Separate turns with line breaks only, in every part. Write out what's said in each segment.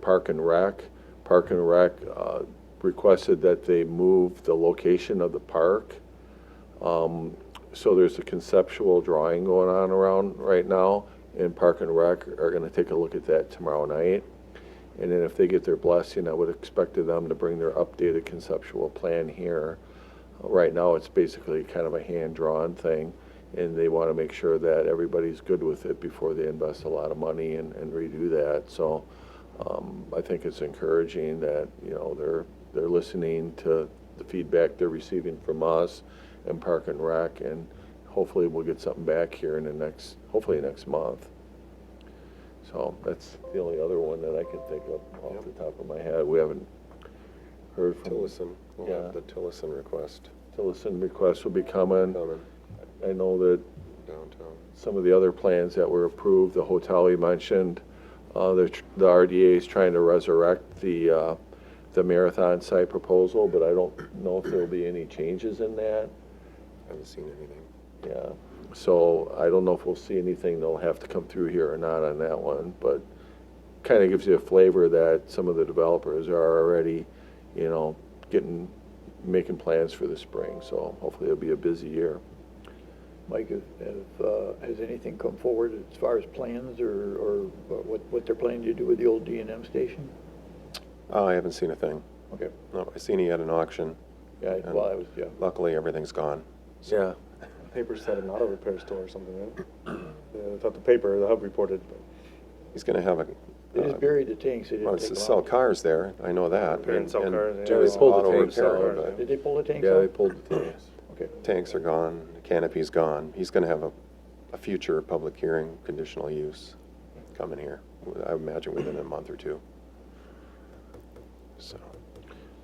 Park and Rec. Park and Rec uh, requested that they move the location of the park. Um, So there's a conceptual drawing going on around right now, and Park and Rec are going to take a look at that tomorrow night. And then if they get their blessing, I would expect of them to bring their updated conceptual plan here. Right now, it's basically kind of a hand-drawn thing, and they want to make sure that everybody's good with it before they invest a lot of money and, and redo that. So um, I think it's encouraging that, you know, they're, they're listening to the feedback they're receiving from us and Park and Rec, and hopefully we'll get something back here in the next, hopefully next month. So that's the only other one that I can think of off the top of my head. We haven't heard from,
Tillison, we'll have
Yeah.
the Tillison request
Tillison requests will be coming.
coming
I know that
downtown.
some of the other plans that were approved, the hotel you mentioned, uh, the, tr- the RDA is trying to resurrect the, uh, the marathon site proposal, but I don't know if there'll be any changes in that.
Haven't seen anything.
Yeah, so I don't know if we'll see anything that'll have to come through here or not on that one, but kind of gives you a flavor that some of the developers are already, you know, getting, making plans for the spring, so hopefully it'll be a busy year.
Mike, if- if, uh, has anything come forward as far as plans or, or what, what they're planning to do with the old D and M station?
Oh, I haven't seen a thing.
Okay.
No, I seen he had an auction.
Yeah, I- well, I was, yeah.
Luckily, everything's gone.
Yeah.
Paper said an auto repair store or something, right? Yeah, I thought the paper, the hub reported, but
He's gonna have a,
They just
uh,
buried the tanks, they
well,
didn't
it's
take
to
them
sell
out.
cars there, I know that.
Repair and sell cars, yeah.
Do
Yeah,
his
they pulled
the
auto
tanks out,
repair,
yeah.
but
Did they pull the tanks
Yeah,
out?
they pulled the things.
Okay, Uh,
tanks are gone, canopy's gone. He's gonna have a, a future public hearing, conditional use coming here, I imagine within a month or two. So,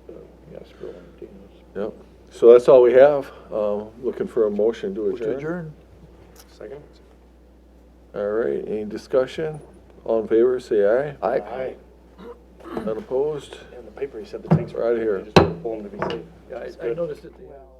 yeah, scrolling, Dino's.
Yep, so that's all we have, um, looking for a motion to
Motion
adjourn.
to adjourn?
second?
All right, any discussion? All in favor, say aye.
Aye.
Unopposed?
And the paper, he said the tanks were.
We're outta here.
They just pulled them to be safe.
Yeah,
That's
I- I
good.
noticed that they.